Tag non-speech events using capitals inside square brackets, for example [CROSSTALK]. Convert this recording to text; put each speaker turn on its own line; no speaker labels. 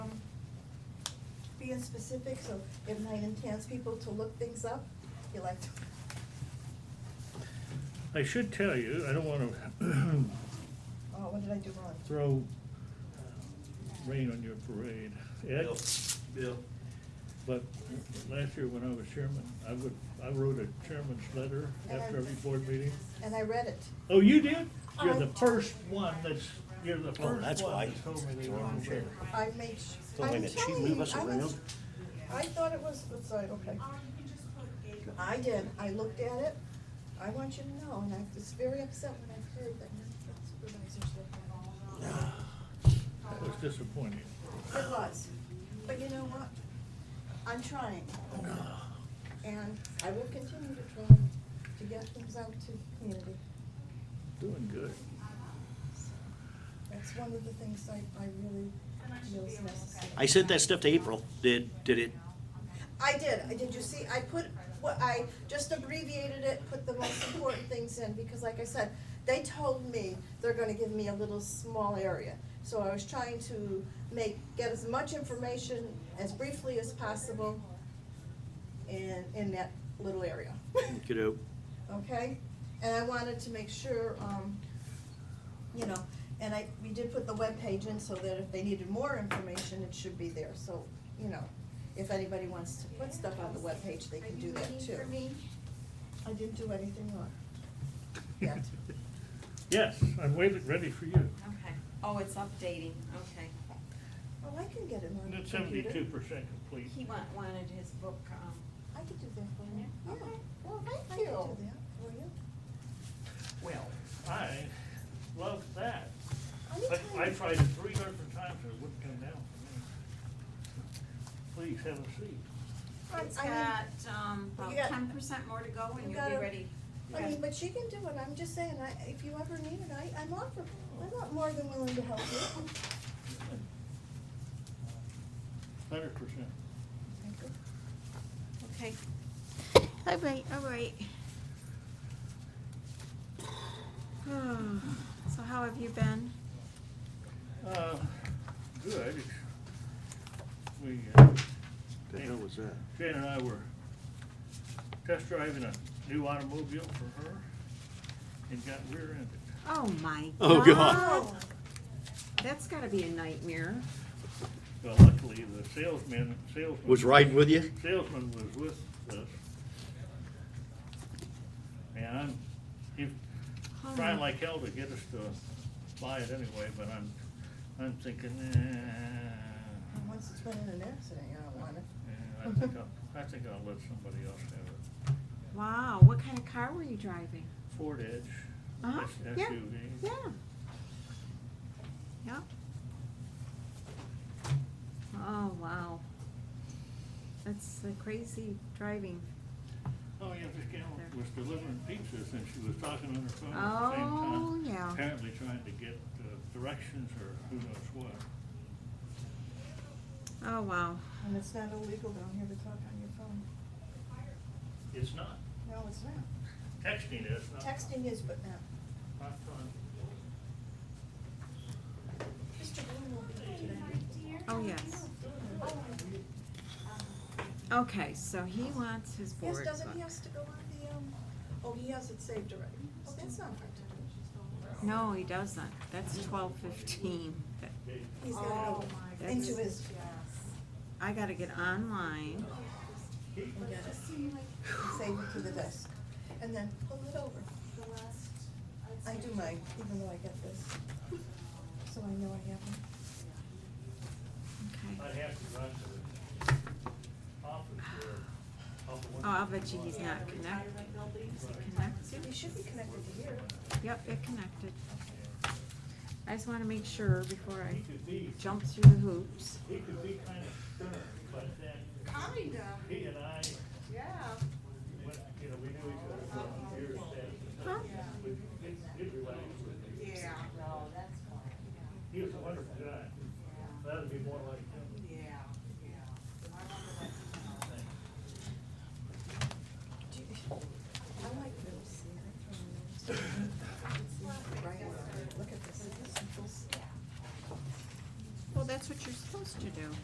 and specific, so if I intends people to look things up, you like to.
I should tell you, I don't want to
Oh, what did I do wrong?
[CLEARS THROAT] throw uh, rain on your parade, Ed,
Bill, Bill,
but last year when I was chairman, I would, I wrote a chairman's letter after every board meeting.
And I read it.
Oh, you did? You're the
I-
first one that's, you're the
Oh,
first
that's
one
why.
that told me they
Throw 'em
were
here.
I made,
So wait a
I'm
minute, she
telling
move
you,
us
I was,
around?
I thought it was, it's like, okay. I did, I looked at it, I want you to know, and I was very upset when I heard that none of the supervisors looked at it.
That was disappointing.
It was, but you know what? I'm trying. And I will continue to try to get things out to the community.
Doing good.
That's one of the things I, I really feel is necessary.
I sent that stuff to April. Did, did it,
I did, I, did you see, I put, what, I just abbreviated it, put the most important things in, because like I said, they told me they're gonna give me a little small area. So I was trying to make, get as much information as briefly as possible in, in that little area.
kiddo?
[LAUGHS] okay? And I wanted to make sure, um, you know, and I, we did put the webpage in so that if they needed more information, it should be there, so, you know, if anybody wants to put stuff on the webpage, they can do that too. I didn't do anything wrong, yet.
[LAUGHS] Yes, I'm waiting, ready for you.
Okay, oh, it's updating, okay.
Oh, I can get it on
And
the
it's
computer.
seventy-two percent complete.
He wa- wanted his book, um,
I could do that for you.
Yeah, okay.
Yeah. I could do that for you.
Well, I love that.
Anytime.
I, I tried it three different times, and it wouldn't come down for me. Please have a seat.
it's
I mean-
got, um,
You
about
got-
ten percent more to go
You
and you'll be
gotta-
ready.
I mean, but she can do it, I'm just saying, I, if you ever need it, I, I'm offer, I'm not more than willing to help you.
Hundred percent.
Thank you.
Okay. All right, all right. Hmm, So how have you been?
Uh, good. We, uh,
The hell was that?
Jane and I were test driving a new automobile for her and got rear-ended.
Oh, my God.
Oh, God.
[LAUGHS]
That's gotta be a nightmare.
Well, luckily, the salesman, salesman.
Was riding with you?
salesman was with uh, us. And I'm, he's trying like hell to get us to buy it anyway, but I'm, I'm thinking,
And
eh.
Once it's been in an accident, I don't want it.
eh, I think I'll, I think I'll let somebody else have it.
Wow, what kind of car were you driving?
Ford Edge,
Uh-huh,
S-
yeah,
SUV.
yeah. Yep. Oh, wow. That's the crazy driving.
Oh, yeah, this gal was delivering pizzas and she was talking on her phone at the same time.
Oh, yeah.
Apparently trying to get uh, directions or who knows what.
Oh, wow.
And it's not illegal down here to talk on your phone.
It's not,
No, it's not.
texting is not.
Texting is, but not.
Not fun.
Mr. Bloom will be here today.
Oh, yes. Okay, so he wants his board
Yes, doesn't he
book.
has to go on the, um, oh, he has it saved already. Oh, that's not hard to do.
No, he doesn't. That's twelve fifteen.
He's gotta go into his,
I gotta get online.
and get it, and save it to the desk, and then pull it over. I do mine, even though I get this, so I know I have it.
Okay.
I'd have to run to the office or up
Oh,
one.
I'll bet you he's not connected. Is it connected?
It should be connected to here.
Yep, it connected. I just wanna make sure before I
He could be,
jump through the hoops.
he could be kind of stern, but then
Kinda,
he and I,
yeah.
went- you know, we knew each other for years then.
Huh?
We did- did relax with him.
Yeah, no, that's fine,
He was a wonderful guy. That'd be more like him.
yeah, yeah. I wonder what he's gonna-
Do you- I like those. Right, look at this, this is-
Well, that's what you're supposed to do.